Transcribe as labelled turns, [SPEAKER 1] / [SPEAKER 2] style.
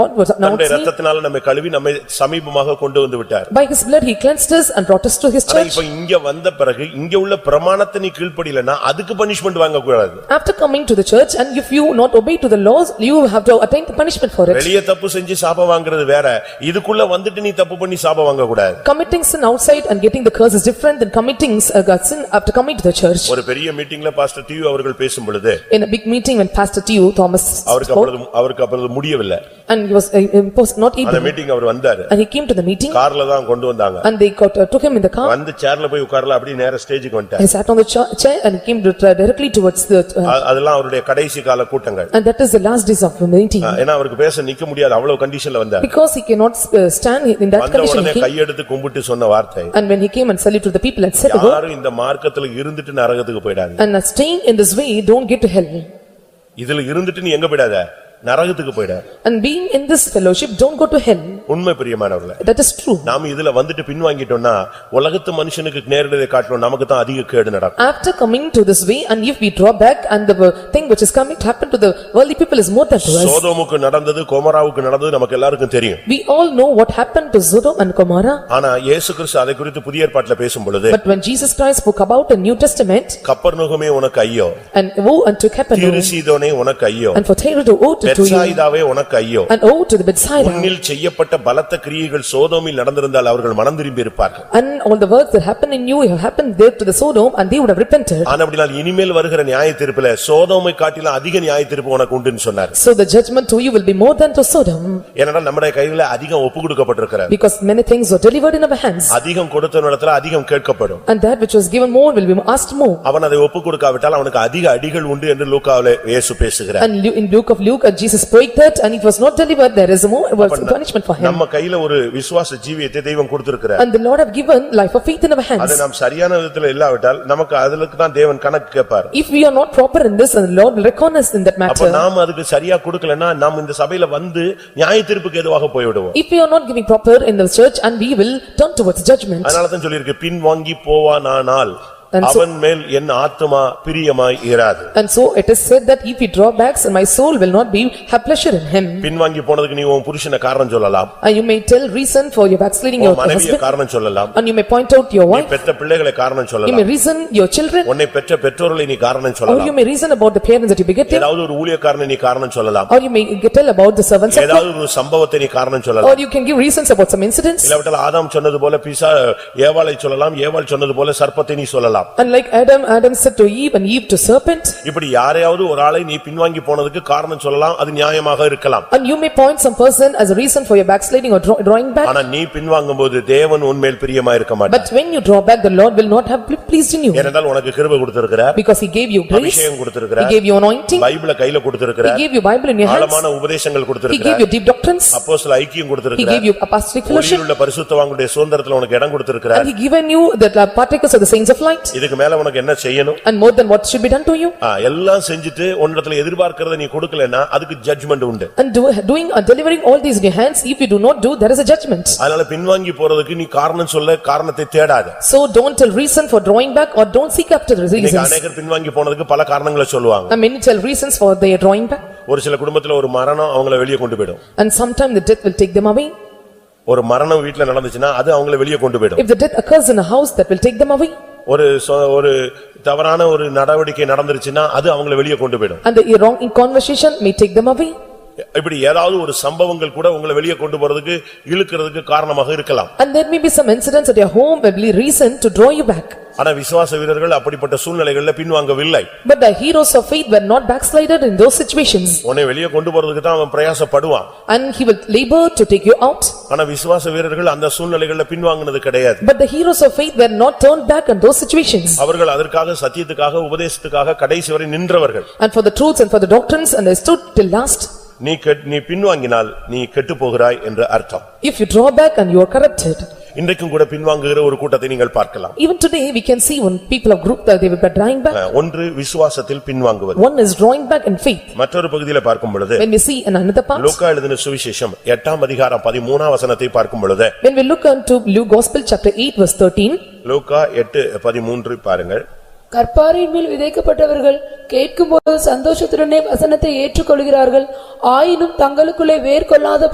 [SPEAKER 1] God was
[SPEAKER 2] தன்னுடைய
[SPEAKER 1] announcing,
[SPEAKER 2] ரத்தத்தினால நம்மை கழுவி நம்மை சமீபமாக கொண்டு வந்து விட்டார்
[SPEAKER 1] by his blood he cleansed us and brought us to his
[SPEAKER 2] ஆனா
[SPEAKER 1] church.
[SPEAKER 2] இப்ப இங்க வந்த பிறகு இங்க உள்ள பிரமாணத்தை நீ கீழ்ப்படியலன்னா அதுக்கு பனிஷ்மெண்ட் வாங்க கூடாது
[SPEAKER 1] After coming to the church and if you not obey to the laws, you have to attain the punishment for it.
[SPEAKER 2] வெளிய தப்பு செஞ்சு சாபம் வாங்குறது வேற இதுக்குள்ள வந்துட்டு நீ தப்பு பண்ணி சாபம் வாங்க கூடாது
[SPEAKER 1] Committing sin outside and getting the curse is different than committing uh, sin after coming to the church.
[SPEAKER 2] ஒரு பெரிய மீட்டிங்ல பாஸ்டர் டிவி அவர்கள் பேசும் பொழுது
[SPEAKER 1] In a big meeting when Pastor T U Thomas
[SPEAKER 2] அவருக்கு
[SPEAKER 1] spoke
[SPEAKER 2] அப்புறம் அவருக்கு அப்புறம் முடியவில்லை
[SPEAKER 1] and he was uh, imposed not
[SPEAKER 2] அந்த
[SPEAKER 1] able
[SPEAKER 2] மீட்டிங் அவர் வந்தாரு
[SPEAKER 1] and he came to the meeting
[SPEAKER 2] கார்ல தான் கொண்டு வந்தாங்க
[SPEAKER 1] and they got uh, took him in the car.
[SPEAKER 2] வந்து சேர்ல போய் உட்கார்ல அப்படியே நேரா ஸ்டேஜுக்கு வந்துட்டார்
[SPEAKER 1] He sat on the cha- chair and he came to- directly towards the uh,
[SPEAKER 2] அ- அதெல்லாம் அவருடைய கடைசி கால கூட்டங்கள்
[SPEAKER 1] and that is the last days of the meeting.
[SPEAKER 2] ஏன்னா அவருக்கு பேச நிக்க முடியாது அவ்வளவு கண்டிஷன்ல வந்தார்
[SPEAKER 1] Because he cannot uh, stand in that
[SPEAKER 2] வந்த
[SPEAKER 1] condition
[SPEAKER 2] உடனே
[SPEAKER 1] he came
[SPEAKER 2] கையெடுத்து கும்பிட்டு சொன்ன வார்த்தை
[SPEAKER 1] and when he came and saluted the people and said "Go
[SPEAKER 2] யாரும் இந்த மார்க்கத்துல இருந்துட்டு நரகத்துக்கு போயிடாதீங்க
[SPEAKER 1] and are staying in this way don't get to hell
[SPEAKER 2] இதுல இருந்துட்டு நீ எங்க போயிடாத நரகத்துக்கு போயிட
[SPEAKER 1] and being in this fellowship don't go to hell."
[SPEAKER 2] உண்மை பிரியமானவர்களே
[SPEAKER 1] That is true.
[SPEAKER 2] நாம இதுல வந்துட்டு பின்வாங்கிட்டோம்னா உலகத்து மனுஷனுக்கு நேரடியை காட்டணும் நமக்கு தான் அதிக கேடு நடக்கும்
[SPEAKER 1] After coming to this way and if we draw back and the thing which is coming to happen to the worldly people is more than to us.
[SPEAKER 2] சோதோமுக்கு நடந்தது கோமராவுக்கு நடந்தது நமக்கு எல்லாருக்கும் தெரியும்
[SPEAKER 1] We all know what happened to Sodom and Gomorrah,
[SPEAKER 2] ஆனா இயேசு கிறிஸ்து அதை குறித்து புதிய ஏற்பாட்டுல பேசும் பொழுது
[SPEAKER 1] but when Jesus Christ spoke about a New Testament,
[SPEAKER 2] கப்பர்நகுமே உனக்கு ஐயோ
[SPEAKER 1] and woe unto Capernaum,
[SPEAKER 2] தீருசீதோனே உனக்கு ஐயோ
[SPEAKER 1] and for Tyre to woe to you,
[SPEAKER 2] பெட்சாயிதாவே உனக்கு ஐயோ
[SPEAKER 1] and woe to the Bethsaida,
[SPEAKER 2] உன்னில் செய்யப்பட்ட பலத்த கிரியைகள் சோதோமில் நடந்திருந்தால் அவர்கள் மனம் திரும்பி இருப்பார்கள்
[SPEAKER 1] and all the works that happened in you have happened there to the Sodom, and they would have repented.
[SPEAKER 2] ஆனா அப்படினால் இனிமேல் வருகிற நியாயத்தீர்ப்புல சோதோமை காட்டிலும் அதிக நியாயத்தீர்ப்பு உனக்கு உண்டுன்னு சொன்னார்
[SPEAKER 1] So the judgment to you will be more than to Sodom,
[SPEAKER 2] ஏன்னா நம்முடைய கையில அதிகம் ஒப்பு கொடுக்கப்பட்டிருக்கிறார்
[SPEAKER 1] because many things were delivered in our hands,
[SPEAKER 2] அதிகம் கொடுத்த இடத்துல அதிகம் கேட்கப்படும்
[SPEAKER 1] and that which was given more will be asked more.
[SPEAKER 2] அவன் அதை ஒப்பு கொடுக்காவிட்டால் அவனுக்கு அதிக அடிகள் உண்டு என்று லூக்காவிலே இயேசு பேசுகிறார்
[SPEAKER 1] And Lu- in Luke of Luke, and Jesus spoke that, and it was not delivered, there is more was punishment for him.
[SPEAKER 2] நம்ம கையில ஒரு விசுவாச ஜீவியத்தை தெய்வம் கொடுத்திருக்கிறார்
[SPEAKER 1] And the Lord have given life of faith in our hands.
[SPEAKER 2] அது நாம் சரியான விதத்துல இல்லாவிட்டால் நமக்கு அதுக்கு தான் தேவன் கணக்கு கேட்பார்
[SPEAKER 1] If we are not proper in this, and the Lord will reckon us in that
[SPEAKER 2] அப்ப
[SPEAKER 1] matter.
[SPEAKER 2] நாம் அதுக்கு சரியா கொடுக்கலன்னா நாம் இந்த சபையில வந்து நியாயத்தீர்ப்புக்கு எதுவாக போய்விடுவோம்
[SPEAKER 1] If we are not giving proper in the church, and we will turn towards judgment.
[SPEAKER 2] அதனாலதான் சொல்லியிருக்கு பின் வாங்கி போவானானால்
[SPEAKER 1] And so-
[SPEAKER 2] அவன் மேல் என் ஆத்துமா பிரியமாய் இராது
[SPEAKER 1] And so it is said that if he draw backs, my soul will not be, have pleasure in him.
[SPEAKER 2] பின் வாங்கி போனதுக்கு நீ உன் புருஷனை காரணம் சொல்லலாம்
[SPEAKER 1] And you may tell reason for your backsliding your
[SPEAKER 2] உன் மனைவியை
[SPEAKER 1] husband,
[SPEAKER 2] காரணம் சொல்லலாம்
[SPEAKER 1] and you may point out your wife,
[SPEAKER 2] பெத்த பிள்ளைகளை காரணம்
[SPEAKER 1] you may
[SPEAKER 2] சொல்லலாம்
[SPEAKER 1] reason your children,
[SPEAKER 2] உன்னை பெற்ற பெற்றோர்களை நீ காரணம்
[SPEAKER 1] or you
[SPEAKER 2] சொல்லலாம்
[SPEAKER 1] may reason about the parents that you begetted,
[SPEAKER 2] ஏதாவது ஒரு ஊழியக்காரனை நீ காரணம் சொல்லலாம்
[SPEAKER 1] or you may tell about the servants of God,
[SPEAKER 2] ஏதாவது ஒரு சம்பவத்தை நீ காரணம் சொல்லலாம்
[SPEAKER 1] or you can give reasons about some incidents.
[SPEAKER 2] இல்லாவிட்டால் ஆதாம் சொன்னது போல பிசா ஏவாளை சொல்லலாம் ஏவாள் சொன்னது போல சர்ப்பத்தை நீ சொல்லலாம்
[SPEAKER 1] And like Adam, Adam said to Eve, and Eve to serpent,
[SPEAKER 2] இப்படி யாரையாவது ஒரு ஆளை நீ பின்வாங்கி போனதுக்கு காரணம் சொல்லலாம் அது நியாயமாக இருக்கலாம்
[SPEAKER 1] and you may point some person as a reason for your backsliding or draw- drawing back.
[SPEAKER 2] ஆனா நீ பின்வாங்கும்போது தேவன் உன்மேல் பிரியமா இருக்க மாட்டார்
[SPEAKER 1] But when you draw back, the Lord will not have been pleased in you,
[SPEAKER 2] ஏனென்றால் உனக்கு கிருபை கொடுத்திருக்கிறார்
[SPEAKER 1] because he gave you grace,
[SPEAKER 2] அபிஷேகம்
[SPEAKER 1] he
[SPEAKER 2] கொடுத்திருக்கிறார்
[SPEAKER 1] gave you anointing,
[SPEAKER 2] பைபிள கையில
[SPEAKER 1] he
[SPEAKER 2] கொடுத்திருக்கிறார்
[SPEAKER 1] gave you Bible in your hands,
[SPEAKER 2] ஆழமான உபதேசங்கள்
[SPEAKER 1] he gave
[SPEAKER 2] கொடுத்திருக்கிறார்
[SPEAKER 1] you deep doctrines,
[SPEAKER 2] அப்போஸ்தல ஐக்கியம்
[SPEAKER 1] he gave
[SPEAKER 2] கொடுத்திருக்கிறார்
[SPEAKER 1] you apostolic fellowship,
[SPEAKER 2] ஒளியுள்ள பரிசுத்தவாங்களுடைய சுதந்திரத்துல உனக்கு இடம்
[SPEAKER 1] and
[SPEAKER 2] கொடுத்திருக்கிறார்
[SPEAKER 1] he given you the partakers of the saints of light,
[SPEAKER 2] இதுக்கு மேல உனக்கு என்ன செய்யணும்
[SPEAKER 1] and more than what should be done to you.
[SPEAKER 2] ஆ, எல்லாம் செஞ்சுட்டு உன்னிடத்துல எதிர்பார்க்கறத நீ கொடுக்கலன்னா அதுக்கு ஜட்ஜ்மெண்ட் உண்டு
[SPEAKER 1] And do- doing and delivering all these in your hands, if you do not do, there is a judgment.
[SPEAKER 2] அதனால பின்வாங்கி போறதுக்கு நீ காரணம் சொல்ல காரணத்தை தேடாத
[SPEAKER 1] So don't tell reason for drawing back, or don't seek after the
[SPEAKER 2] இன்னைக்கு
[SPEAKER 1] reasons.
[SPEAKER 2] அநேகர் பின்வாங்கி போனதுக்கு பல காரணங்களை சொல்லுவாங்க
[SPEAKER 1] And many tell reasons for their drawing back,
[SPEAKER 2] ஒரு சில குடும்பத்துல ஒரு மரணம் அவங்கள வெளியே கொண்டு போயிடும்
[SPEAKER 1] and sometime the death will take them away.
[SPEAKER 2] ஒரு மரணம் வீட்ல நடந்துச்சுன்னா அது அவங்கள வெளியே கொண்டு போயிடும்
[SPEAKER 1] If the death occurs in a house, that will take them away.
[SPEAKER 2] ஒரு சொ- ஒரு தவறான ஒரு நடவடிக்கை நடந்துருச்சுன்னா அது அவங்கள வெளியே கொண்டு போயிடும்
[SPEAKER 1] And the wrong conversation may take them away.
[SPEAKER 2] இப்படி ஏதாவது ஒரு சம்பவங்கள் கூட உங்களை வெளியே கொண்டு போறதுக்கு இழுக்கிறதுக்கு காரணமாக இருக்கலாம்
[SPEAKER 1] And there may be some incidents at your home, may be reason to draw you back.
[SPEAKER 2] ஆனா விசுவாச வீரர்கள் அப்படிப்பட்ட சூழ்நிலைகள்ல பின்வாங்கவில்லை
[SPEAKER 1] But the heroes of faith were not backslided in those situations.
[SPEAKER 2] உன்னை வெளியே கொண்டு போறதுக்கு தான் அவன் பிரயாசப்படுவான்
[SPEAKER 1] And he will labor to take you out.
[SPEAKER 2] ஆனா விசுவாச வீரர்கள் அந்த சூழ்நிலைகள்ல பின்வாங்கினது கிடையாது
[SPEAKER 1] But the heroes of faith were not turned back in those situations.
[SPEAKER 2] அவர்கள் அதற்காக சத்தியத்துக்காக உபதேசத்துக்காக கடைசி வரை நின்றவர்கள்
[SPEAKER 1] And for the truths and for the doctrines and they stood till last.
[SPEAKER 2] நீ கெட்- நீ பின்வாங்கினால் நீ கெட்டுப் போகிறாய் என்று அர்த்தம்
[SPEAKER 1] If you draw back and you are corrupted.
[SPEAKER 2] இன்றைக்கும் கூட பின்வாங்குகிற ஒரு கூட்டத்தை நீங்கள் பார்க்கலாம்
[SPEAKER 1] Even today, we can see when people of group that they were drawing back.
[SPEAKER 2] அஹ், ஒன்று விசுவாசத்தில் பின்வாங்குவது
[SPEAKER 1] One is drawing back in faith.
[SPEAKER 2] மற்றொரு பகுதியில பார்க்கும் பொழுது
[SPEAKER 1] When we see in another part,
[SPEAKER 2] லூக்கா எழுதின சுவிசேஷம் எட்டாம் அதிகாரம் பதிமூணா வசனத்தை பார்க்கும் பொழுது
[SPEAKER 1] when we look unto Luke Gospel chapter 8 verse 13.
[SPEAKER 2] லூக்கா எட்டு பதிமூன்று பாருங்கள்
[SPEAKER 3] கற்பாரின் மேல் விதைக்கப்பட்டவர்கள் கேட்கும்போது சந்தோஷத்துடனே வசனத்தை ஏற்றுக்கொள்கிறார்கள் ஆயினும் தங்களுக்குள்ளே வேர்கொள்ளாத